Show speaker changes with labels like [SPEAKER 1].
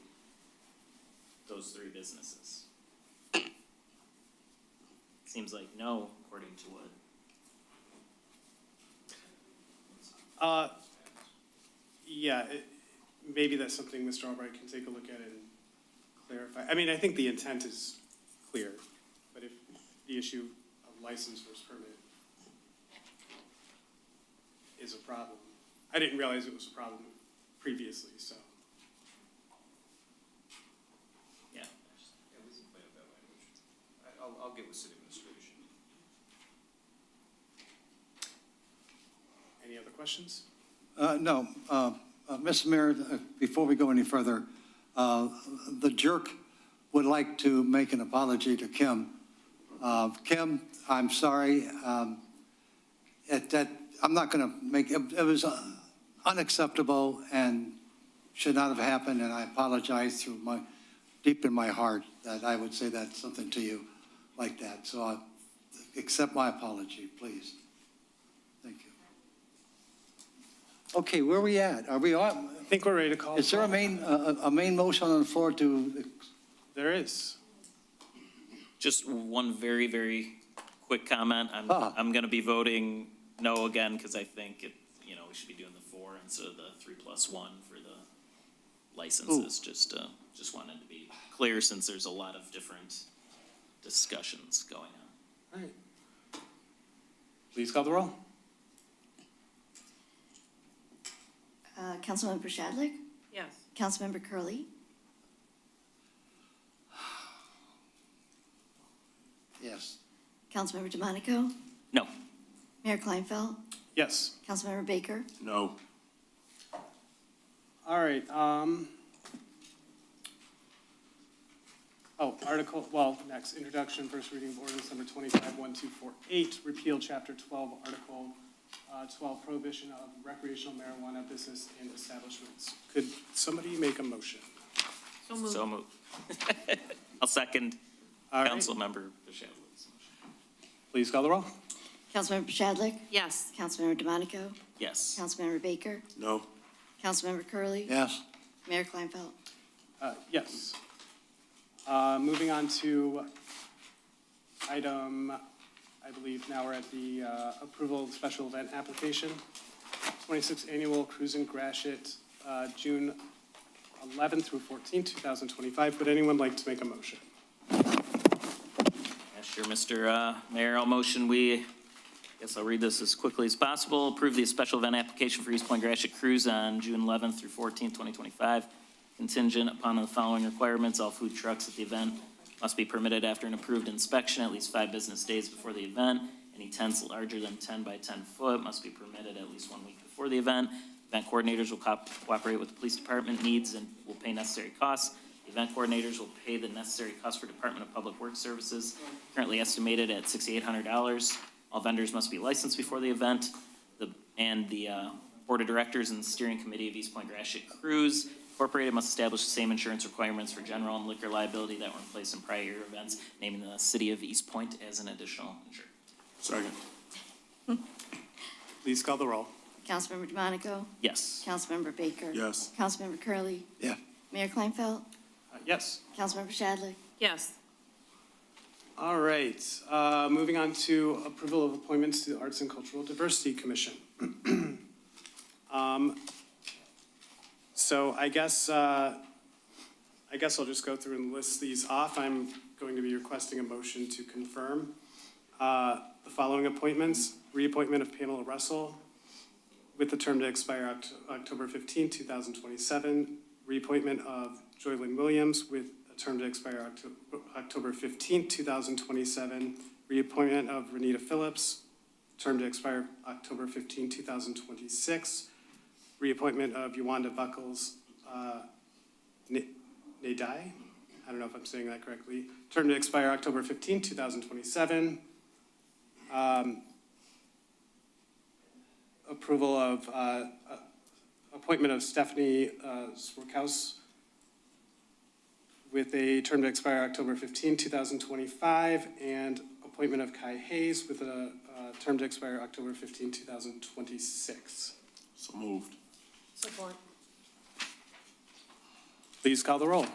[SPEAKER 1] those three businesses? Seems like no, according to what.
[SPEAKER 2] Uh, yeah, it, maybe that's something Mr. Albright can take a look at and clarify. I mean, I think the intent is clear, but if the issue of license versus permit is a problem, I didn't realize it was a problem previously, so.
[SPEAKER 1] Yeah.
[SPEAKER 3] Yeah, we can play with that language. I- I'll, I'll get with city administration.
[SPEAKER 2] Any other questions?
[SPEAKER 4] Uh, No. uh, uh, Mr. Mayor, uh, before we go any further, uh, the jerk would like to make an apology to Kim. Uh, Kim, I'm sorry. um, It, that, I'm not going to make, it it was uh, unacceptable and should not have happened, and I apologize through my, deep in my heart that I would say that, something to you like that. So I, accept my apology, please. Thank you. Okay, where are we at? Are we on,
[SPEAKER 2] I think we're ready to call.
[SPEAKER 4] is there a main, a, a- a main motion on the floor to,
[SPEAKER 2] There is.
[SPEAKER 1] Just one very, very quick comment. I'm,
[SPEAKER 4] Ah.
[SPEAKER 1] I'm gonna be voting no again, because I think it, you know, we should be doing the four instead of the three plus one for the licenses. Just, uh, just wanted to be clear since there's a lot of different discussions going on.
[SPEAKER 2] All right. Please call the roll.
[SPEAKER 5] Uh, Councilmember Shadlick?
[SPEAKER 6] Yes.
[SPEAKER 5] Councilmember Curley,
[SPEAKER 4] yes?
[SPEAKER 5] Councilmember DeMonico?
[SPEAKER 1] No.
[SPEAKER 5] Mayor Kleinfeld?
[SPEAKER 2] Yes.
[SPEAKER 5] Councilmember Baker?
[SPEAKER 3] No.
[SPEAKER 2] All right, um. Oh, article, well, next, introduction, first reading of ordinance number twenty-five, one, two, four, eight, repeal chapter twelve, article, uh, twelve, prohibition of recreational marijuana business and establishments. Could somebody make a motion?
[SPEAKER 6] So moved.
[SPEAKER 1] So moved. I'll second
[SPEAKER 2] All right,
[SPEAKER 1] Councilmember Bishadlow's motion.
[SPEAKER 2] please call the roll.
[SPEAKER 5] Councilmember Shadlick?
[SPEAKER 6] Yes.
[SPEAKER 5] Councilmember DeMonico?
[SPEAKER 1] Yes.
[SPEAKER 5] Councilmember Baker?
[SPEAKER 3] No.
[SPEAKER 5] Councilmember Curley,
[SPEAKER 4] Yes?
[SPEAKER 5] Mayor Kleinfeld?
[SPEAKER 2] Uh, yes. Uh, moving on to item, I believe now we're at the, uh, approval of special event application. 26th Annual Cruisin' Gratiot, uh, June 11th through 14th, 2025. Would anyone like to make a motion?
[SPEAKER 1] Yeah, Sure, Mr. uh, Mayor, I'll motion we, guess I'll read this as quickly as possible. Approve the special event application for East Point Gratiot Cruise on June 11th through 14th, 2025, contingent upon the following requirements. All food trucks at the event must be permitted after an approved inspection at least five business days before the event. Any tents larger than 10 by 10 foot must be permitted at least one week before the event. Event coordinators will co- cooperate with the police department needs and will pay necessary costs. The Event coordinators will pay the necessary cost for Department of Public Works Services, currently estimated at sixty-eight hundred dollars. All vendors must be licensed before the event. The, and the, uh, Board of Directors and Steering Committee of East Point Gratiot Cruise Incorporated must establish the same insurance requirements for general and liquor liability that were in place in prior year events, naming the city of East Point as an additional insurer.
[SPEAKER 3] Second.
[SPEAKER 2] Please call the roll.
[SPEAKER 5] Councilmember DeMonico?
[SPEAKER 1] Yes.
[SPEAKER 5] Councilmember Baker?
[SPEAKER 3] Yes.
[SPEAKER 5] Councilmember Curley,
[SPEAKER 4] Yeah.
[SPEAKER 5] Mayor Kleinfeld?
[SPEAKER 2] Uh, Yes.
[SPEAKER 5] Councilmember Shadlick?
[SPEAKER 6] Yes.
[SPEAKER 2] All right, uh, moving on to approval of appointments to the Arts and Cultural Diversity Commission. Um, So I guess, uh, I guess I'll just go through and list these off. I'm going to be requesting a motion to confirm uh, the following appointments. Reappointment of Pamela Russell with the term to expire Oct- October 15, 2027. Reappointment of Joylyn Williams with a term to expire Octo- October 15, 2027. Reappointment of Renita Phillips, term to expire October 15, 2026. Reappointment of Yolanda Buckles uh, Na- Nadai, I don't know if I'm saying that correctly, term to expire October 15, 2027. Um, Approval of, uh, uh, appointment of Stephanie uh, Swerkaus with a term to expire October 15, 2025, and appointment of Kai Hayes with a uh, term to expire October 15, 2026.
[SPEAKER 3] So moved.
[SPEAKER 6] Support.
[SPEAKER 2] Please call the roll.